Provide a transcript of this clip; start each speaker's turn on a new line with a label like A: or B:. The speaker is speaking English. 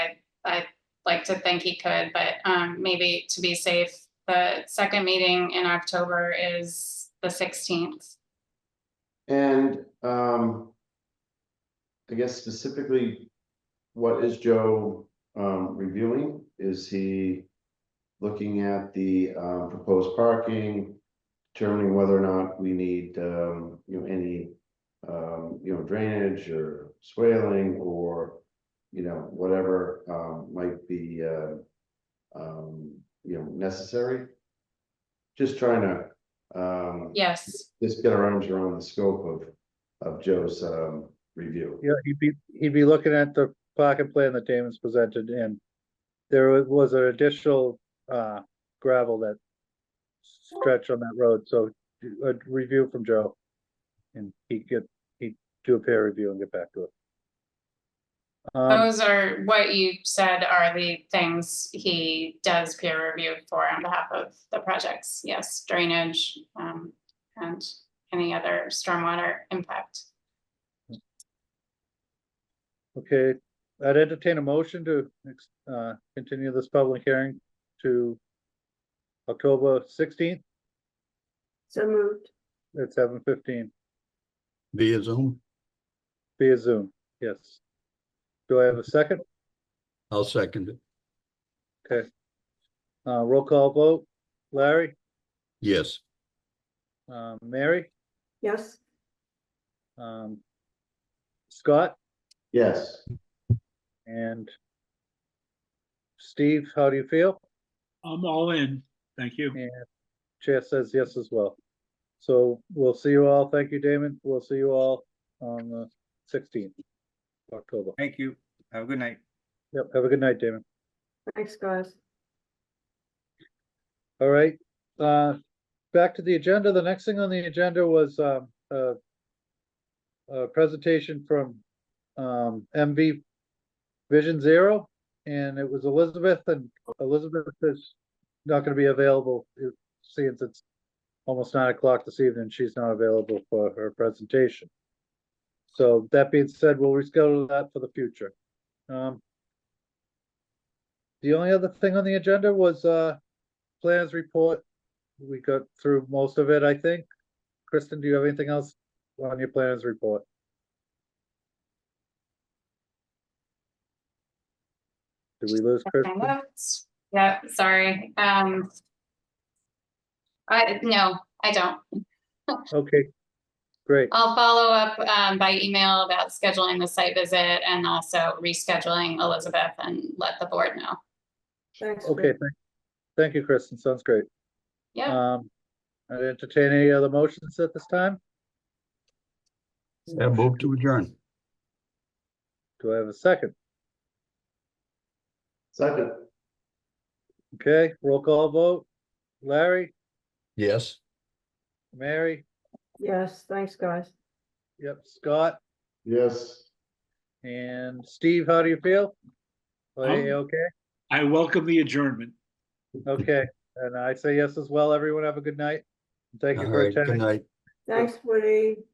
A: I'd like to think he could, but um, maybe to be safe, the second meeting in October is the sixteenth.
B: And um. I guess specifically, what is Joe um reviewing? Is he? Looking at the uh proposed parking, determining whether or not we need um, you know, any. Um, you know, drainage or swaling or, you know, whatever um might be uh. Um, you know, necessary. Just trying to um
A: Yes,
B: just get our arms around the scope of, of Joe's, um, review.
C: Yeah, he'd be, he'd be looking at the pocket plan that Damon's presented and there wa- was an additional uh gravel that stretch on that road, so a review from Joe. And he'd get, he'd do a peer review and get back to it. Um,
A: those are what you said are the things he does peer review for on behalf of the projects. Yes, drainage um, and any other stormwater impact.
C: okay, I'd entertain a motion to ex- uh continue this public hearing to October sixteenth
D: So moved.
C: at seven fifteen.
E: via Zoom.
C: Via Zoom, yes. Do I have a second?
E: I'll second it.
C: Uh, roll call vote. Larry,
E: Yes,
C: um, Mary,
D: Yes,
C: um, Scott
B: Yes,
C: and Steve, how do you feel?
F: I'm all in. Thank you.
C: And Chair says yes as well. So we'll see you all. Thank you, Damon. We'll see you all on the sixteenth of October.
G: Thank you. Have a good night.
C: Yep, have a good night, Damon.
D: thanks, guys.
C: All right, uh, back to the agenda. The next thing on the agenda was, um, uh, a presentation from, um, MV Vision Zero, and it was Elizabeth, and Elizabeth is not gonna be available, it- since it's almost nine o'clock this evening, she's not available for her presentation. So that being said, we'll reschedule that for the future. Um, the only other thing on the agenda was, uh, plans report. We got through most of it, I think. Kristen, do you have anything else on your plans report? Did we lose Kristen?
A: Whoops. Yeah, sorry. Um, I, no, I don't.
C: Okay, great.
A: I'll follow up um, by email about scheduling the site visit and also rescheduling Elizabeth and let the board know.
D: Thanks.
C: Okay, thank, thank you, Kristen. Sounds great.
A: Yeah,
C: Um, I'd entertain any other motions at this time.
E: I move to adjourn.
C: Do I have a second?
B: second,
C: Okay, roll call vote. Larry,
E: Yes,
C: Mary,
D: Yes, thanks, guys.
C: yep, Scott,
B: yes.
C: and Steve, how do you feel? Are you
F: Um,
C: okay?
F: I welcome the adjournment.
C: Okay, and I say yes as well. Everyone have a good night. Thank you
E: all
C: for
E: right, good
C: attending.
E: night.
D: Thanks, Woody.